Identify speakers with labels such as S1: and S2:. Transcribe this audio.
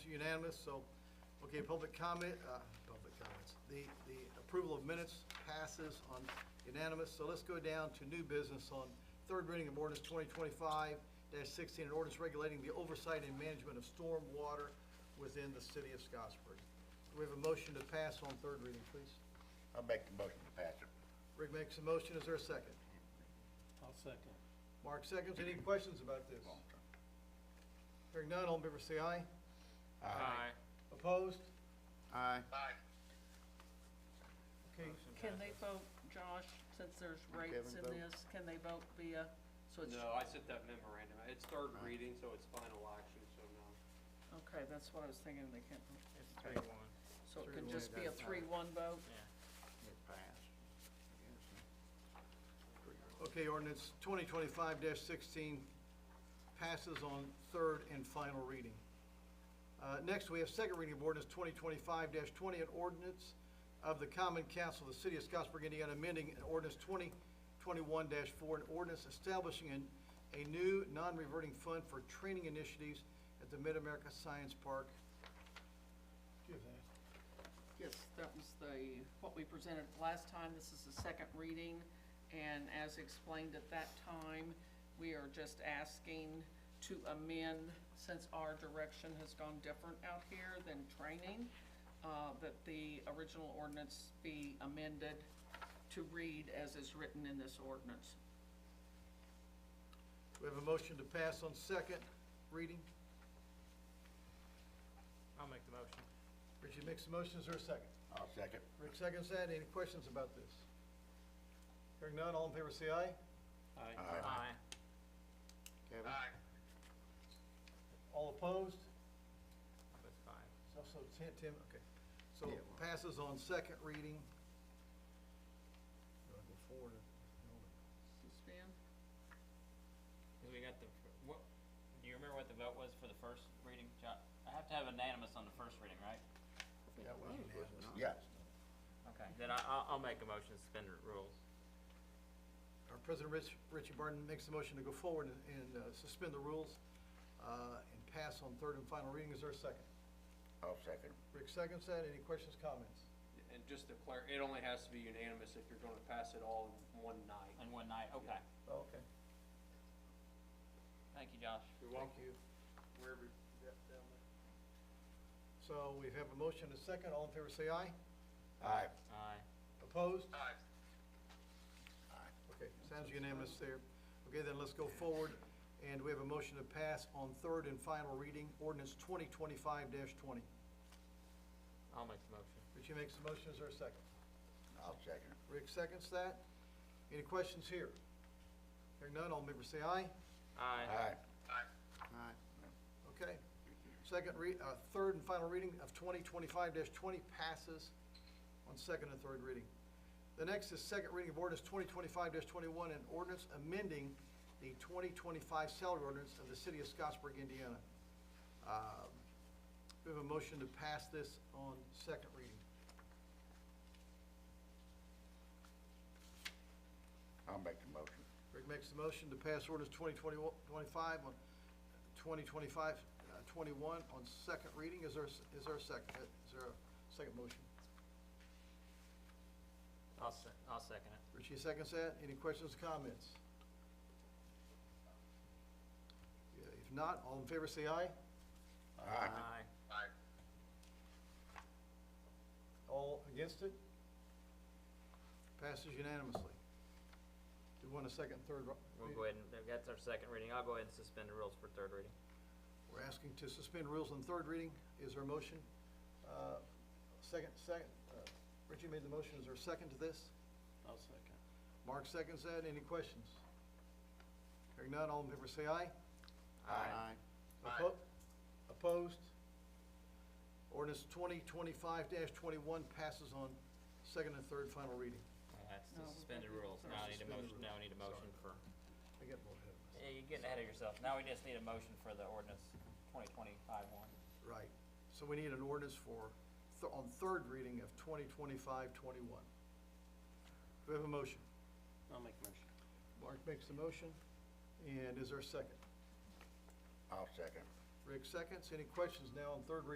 S1: unanimous, so, okay, public comment, uh, public comments. The, the approval of minutes passes on unanimous, so let's go down to new business on third reading of ordinance twenty twenty-five sixteen, an ordinance regulating the oversight and management of storm water within the city of Scottsburg. Do we have a motion to pass on third reading, please?
S2: I'll make the motion to pass it.
S1: Rick makes a motion, is there a second?
S3: I'll second.
S1: Mark seconds, any questions about this? Hearing none, all in favor say aye.
S4: Aye.
S1: Opposed?
S2: Aye.
S1: Okay,
S5: Can they vote, Josh, since there's rates in
S2: vote?
S5: this, can they vote via, so it's,
S4: No, I sent that memorandum. It's third reading, so it's final action, so no.
S5: okay, that's what I was thinking, they can't,
S6: It's three one.
S5: so
S2: Three,
S5: it could
S2: one,
S5: just be a
S2: that's fine.
S5: three-one vote?
S2: It passed.
S1: okay, ordinance twenty twenty-five sixteen passes on third and final reading. Uh, next, we have second reading of ordinance twenty twenty-five twenty, an ordinance of the common council of the city of Scottsburg, Indiana, amending an ordinance twenty twenty-one four, an ordinance establishing an, a new non-reverting fund for training initiatives at the Mid-America Science Park. Do you have that?
S5: Yes, that was the, what we presented last time, this is the second reading, and as explained at that time, we are just asking to amend, since our direction has gone different out here than training, uh, that the original ordinance be amended to read as is written in this ordinance.
S1: We have a motion to pass on second reading.
S6: I'll make the motion.
S1: Richie makes the motion, is there a second?
S2: I'll second.
S1: Rick seconds that, any questions about this? Hearing none, all in favor say aye.
S4: Aye.
S2: Aye.
S1: Kevin? All opposed?
S6: That's five.
S1: So, so Tim, Tim, okay. So
S2: Yeah, well-
S1: passes on second reading. Do I go forward or-
S5: Suspend?
S7: Because we got the, what, do you remember what the vote was for the first reading, John? I have to have unanimous on the first reading, right?
S1: That was unanimous.
S2: Yeah.
S7: Okay.
S6: Then I, I'll, I'll make a motion to suspend the rules.
S1: Our President Rich, Richie Barton makes the motion to go forward and- and uh, suspend the rules uh, and pass on third and final reading, is there a second?
S2: I'll second.
S1: Rick seconds that, any questions, comments?
S4: And just to clarify, it only has to be unanimous if you're going to pass it all in one night.
S7: In one night, okay.
S1: Okay.
S7: Thank you, Josh.
S4: You're
S1: Thank
S4: welcome.
S1: you.
S4: Wherever, yeah, down there.
S1: So we have a motion and a second. All in favor say aye.
S2: Aye.
S7: Aye.
S1: Opposed? Aye. Okay, sounds unanimous there. Okay, then let's go forward. And we have a motion to pass on third and final reading, ordinance 2025-20.
S6: I'll make the motion.
S1: Richie makes the motion. Is there a second?
S2: I'll second.
S1: Rick seconds that. Any questions here? Hearing none, all in favor say aye.
S6: Aye.
S2: Aye.
S1: Okay. Second re, uh, third and final reading of twenty twenty-five twenty passes on second and third reading. The next is second reading of ordinance twenty twenty-five twenty-one, an ordinance amending the twenty twenty-five salary ordinance of the city of Scottsburg, Indiana. Uh, We have a motion to pass this on second reading.
S2: I'll make the motion.
S1: Rick makes the motion to pass ordinance 2021 25 on, 2025, uh, 21 on second reading. Is there, is there a second, uh, is there a second motion?
S6: I'll se- I'll second it.
S1: Richie seconds that. Any questions, comments? Yeah, If not, all in favor say aye.
S2: Aye.
S1: All against it? Passes unanimously. Do you want a second, and third? ro-
S6: We'll go ahead and, that's our second reading. I'll go ahead and suspend the rules for third reading.
S1: We're asking to suspend rules on third reading. Is there a motion? Uh, Second, second, uh, Richie made the motion. Is there a second to this?
S7: I'll second.
S1: Mark seconds that. Any questions? Hearing none, all in favor say aye.
S2: Aye.
S1: Oppo- Opposed? Ordinance twenty twenty-five twenty-one passes on second and third final reading.
S6: Well, That's
S5: No,
S6: to
S5: we've
S6: suspend the
S5: got the
S6: rules. Now I need a
S1: Suspend the
S6: motion,
S1: rules.
S6: now I need a motion for,
S1: I get more ahead of
S7: Yeah, you're getting ahead of yourself. Now we just need a motion for the ordinance twenty twenty-five one.
S1: us. Right. So we need an ordinance for, th- on third reading of twenty twenty-five twenty-one. Do we have a motion?
S4: I'll make a motion.
S1: Mark makes the motion, and is there a second?
S2: I'll second.
S1: Rick seconds. Any questions now on third reading